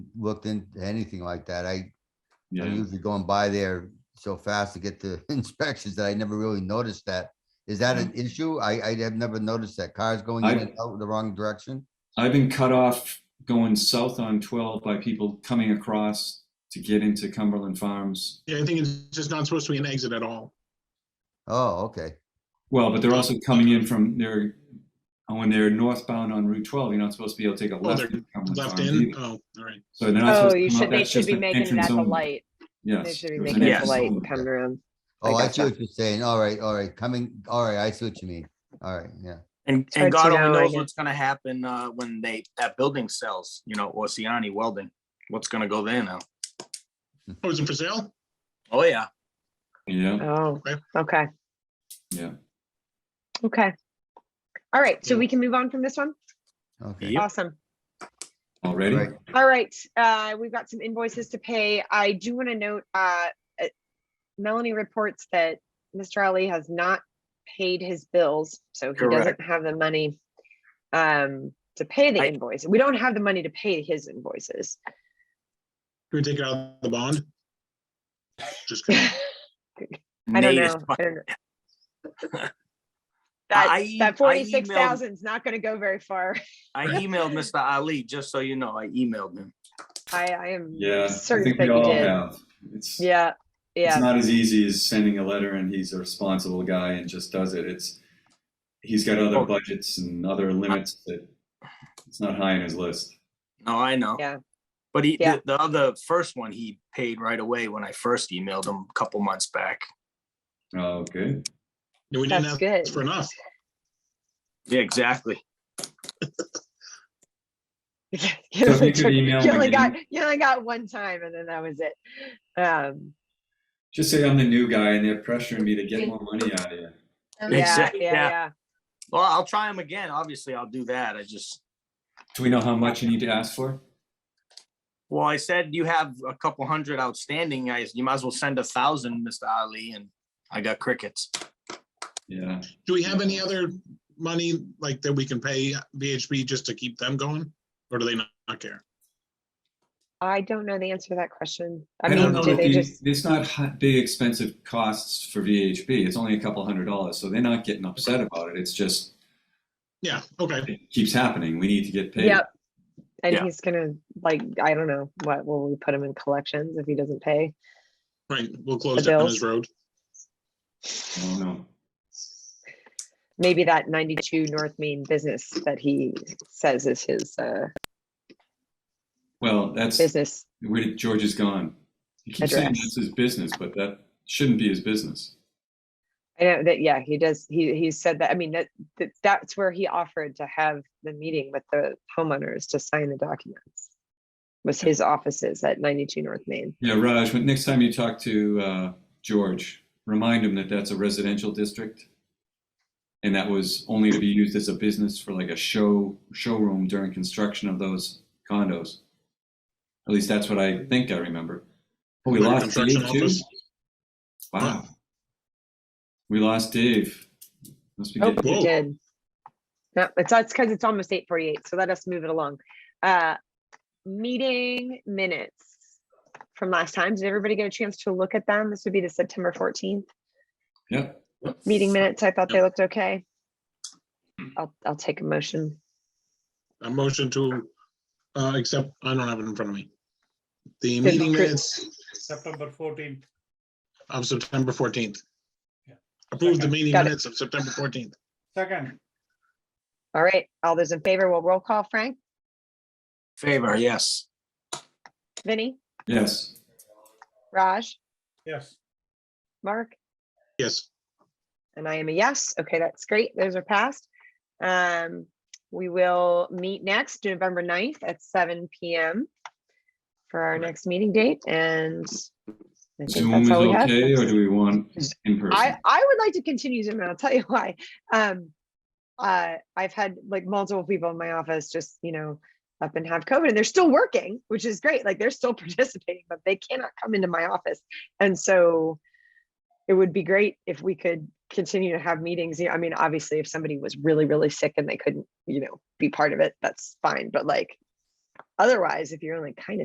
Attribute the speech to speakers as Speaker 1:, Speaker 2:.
Speaker 1: looked into anything like that. I, I'm
Speaker 2: Yeah,
Speaker 1: usually going by there so fast to get to inspections that I never really noticed that. Is that an issue? I, I have never noticed that cars going in
Speaker 2: Mm. I-
Speaker 1: and out the wrong direction.
Speaker 2: I've been cut off going south on twelve by people coming across to get into Cumberland Farms.
Speaker 3: Yeah, I think it's just not supposed to be an exit at all.
Speaker 1: Oh, okay.
Speaker 2: Well, but they're also coming in from their, when they're northbound on Route twelve, you're not supposed to be able to take a
Speaker 3: Oh,
Speaker 2: left.
Speaker 3: they're
Speaker 2: in Cumberland
Speaker 3: Left
Speaker 2: Farms
Speaker 3: in,
Speaker 2: either.
Speaker 3: oh, all right.
Speaker 2: So they're not supposed
Speaker 4: Oh,
Speaker 2: to
Speaker 4: you
Speaker 2: come out,
Speaker 4: should, they
Speaker 2: that's
Speaker 4: should
Speaker 2: just
Speaker 4: be
Speaker 2: an
Speaker 4: making
Speaker 2: entrance
Speaker 4: that the
Speaker 2: only.
Speaker 4: light.
Speaker 2: Yes.
Speaker 4: They should be
Speaker 2: it was an
Speaker 4: making it the
Speaker 2: entrance
Speaker 4: light
Speaker 2: only.
Speaker 4: coming around.
Speaker 1: Oh, I see
Speaker 4: gotcha.
Speaker 1: what you're saying. All right, all right, coming, all right, I see what you mean. All right, yeah.
Speaker 5: And,
Speaker 4: It's
Speaker 5: and
Speaker 4: hard to
Speaker 5: God
Speaker 4: know,
Speaker 5: only
Speaker 4: I
Speaker 5: knows
Speaker 4: guess.
Speaker 5: what's gonna happen, uh, when they, that building sells, you know, Oceani Welding, what's gonna go there now?
Speaker 3: Oh, is it for sale?
Speaker 5: Oh, yeah.
Speaker 2: Yeah,
Speaker 4: Oh,
Speaker 3: Okay.
Speaker 4: okay,
Speaker 2: yeah.
Speaker 4: okay. All right, so
Speaker 3: Yeah.
Speaker 4: we can move on from this one?
Speaker 1: Okay,
Speaker 5: Yep.
Speaker 4: Awesome.
Speaker 2: Already?
Speaker 1: Right.
Speaker 4: All right, uh, we've got some invoices to pay. I do want to note, uh, uh, Melanie reports that Mr. Ali has not paid his bills, so he doesn't
Speaker 5: Correct.
Speaker 4: have the money um, to pay the
Speaker 5: I-
Speaker 4: invoice. We don't have the money to pay his invoices.
Speaker 3: Can we take it out of the bond? Just kidding.
Speaker 4: I don't
Speaker 5: Nate is
Speaker 4: know.
Speaker 5: fu-
Speaker 4: I don't know. That,
Speaker 5: I- I
Speaker 4: that
Speaker 5: emailed-
Speaker 4: forty-six thousand is not gonna go very far.
Speaker 5: I emailed Mr. Ali, just so you know, I emailed him.
Speaker 4: I, I am
Speaker 2: Yeah, I
Speaker 4: certain
Speaker 2: think
Speaker 4: that
Speaker 2: we
Speaker 4: you
Speaker 2: all
Speaker 4: did.
Speaker 2: have. It's, it's
Speaker 4: Yeah, yeah,
Speaker 2: not as easy as sending a letter and he's a responsible guy and just does it. It's, he's got other
Speaker 5: Oh.
Speaker 2: budgets and other limits that it's not high on his list.
Speaker 5: No, I know.
Speaker 4: Yeah.
Speaker 5: But he,
Speaker 4: Yeah.
Speaker 5: the, the other first one, he paid right away when I first emailed him a couple months back.
Speaker 2: Oh, good.
Speaker 3: No, we didn't
Speaker 4: that's
Speaker 3: ask
Speaker 4: good.
Speaker 3: for enough.
Speaker 5: Yeah, exactly.
Speaker 4: You
Speaker 2: So if
Speaker 4: only
Speaker 2: you could
Speaker 4: took-
Speaker 2: email
Speaker 4: you
Speaker 2: him
Speaker 4: only got,
Speaker 2: again,
Speaker 4: you only got one time and then that was it. Um,
Speaker 2: just say I'm the new guy and they're pressuring me to get more money out of you.
Speaker 4: yeah, yeah,
Speaker 5: Exact- yeah.
Speaker 4: yeah.
Speaker 5: Well, I'll try him again. Obviously, I'll do that. I just,
Speaker 2: Do we know how much you need to ask for?
Speaker 5: Well, I said you have a couple hundred outstanding guys. You might as well send a thousand, Mr. Ali, and I got crickets.
Speaker 2: Yeah.
Speaker 3: Do we have any other money like that we can pay VHB just to keep them going? Or do they not not care?
Speaker 4: I don't know the answer to that question. I
Speaker 2: I don't
Speaker 4: mean,
Speaker 2: know
Speaker 4: do
Speaker 2: if
Speaker 4: they
Speaker 2: the,
Speaker 4: just,
Speaker 2: it's not hi- big expensive costs for VHB. It's only a couple hundred dollars, so they're not getting upset about it. It's just,
Speaker 3: Yeah, okay.
Speaker 2: it keeps happening. We need to get paid.
Speaker 4: yep. And
Speaker 5: Yeah.
Speaker 4: he's gonna, like, I don't know, what, will we put him in collections if he doesn't pay?
Speaker 3: Right, we'll close down
Speaker 4: bills.
Speaker 3: his road.
Speaker 2: I don't know.
Speaker 4: Maybe that ninety-two North Main business that he says is his, uh,
Speaker 2: Well, that's
Speaker 4: business.
Speaker 2: where George is gone. He keeps saying
Speaker 4: Address.
Speaker 2: that's his business, but that shouldn't be his business.
Speaker 4: I know that, yeah, he does, he, he said that, I mean, that, that, that's where he offered to have the meeting with the homeowners to sign the documents. Was his offices at ninety-two North Main.
Speaker 2: Yeah, Raj, when, next time you talk to uh, George, remind him that that's a residential district. And that was only to be used as a business for like a show, showroom during construction of those condos. At least that's what I think I remember. Oh, we
Speaker 3: Like a
Speaker 2: lost
Speaker 3: construction
Speaker 2: Dave too?
Speaker 3: office.
Speaker 2: Wow. We lost Dave. Must be
Speaker 4: Oh,
Speaker 2: getting-
Speaker 4: we
Speaker 3: Whoa.
Speaker 4: did. No, it's, that's because it's almost eight forty-eight, so let us move it along. Uh, meeting minutes from last time. Did everybody get a chance to look at them? This would be the September fourteenth
Speaker 2: Yep,
Speaker 4: meeting minutes. I thought they looked okay. I'll, I'll take a motion.
Speaker 3: A motion to, uh, accept, I don't have it in front of me. The
Speaker 4: Good.
Speaker 3: meeting minutes
Speaker 6: September fourteenth.
Speaker 3: of September fourteenth.
Speaker 6: Yeah.
Speaker 3: Approve the meeting
Speaker 4: Got it.
Speaker 3: minutes of September fourteenth.
Speaker 6: Second,
Speaker 4: All right, all those in favor will roll call. Frank,
Speaker 5: Favor, yes.
Speaker 4: Vinny,
Speaker 2: yes.
Speaker 4: Raj,
Speaker 6: yes.
Speaker 4: Mark,
Speaker 3: Yes,
Speaker 4: and I am a yes. Okay, that's great. Those are passed. Um, we will meet next November 9th at seven PM for our next meeting date and I think
Speaker 2: Zoom is
Speaker 4: that's all we have.
Speaker 2: okay, or do we want in person?
Speaker 4: I, I would like to continue Zoom and I'll tell you why. Um, uh, I've had like multiple people in my office just, you know, up and have COVID and they're still working, which is great. Like they're still participating, but they cannot come into my office. And so it would be great if we could continue to have meetings. You know, I mean, obviously if somebody was really, really sick and they couldn't, you know, be part of it, that's fine. But like, otherwise, if you're only kind of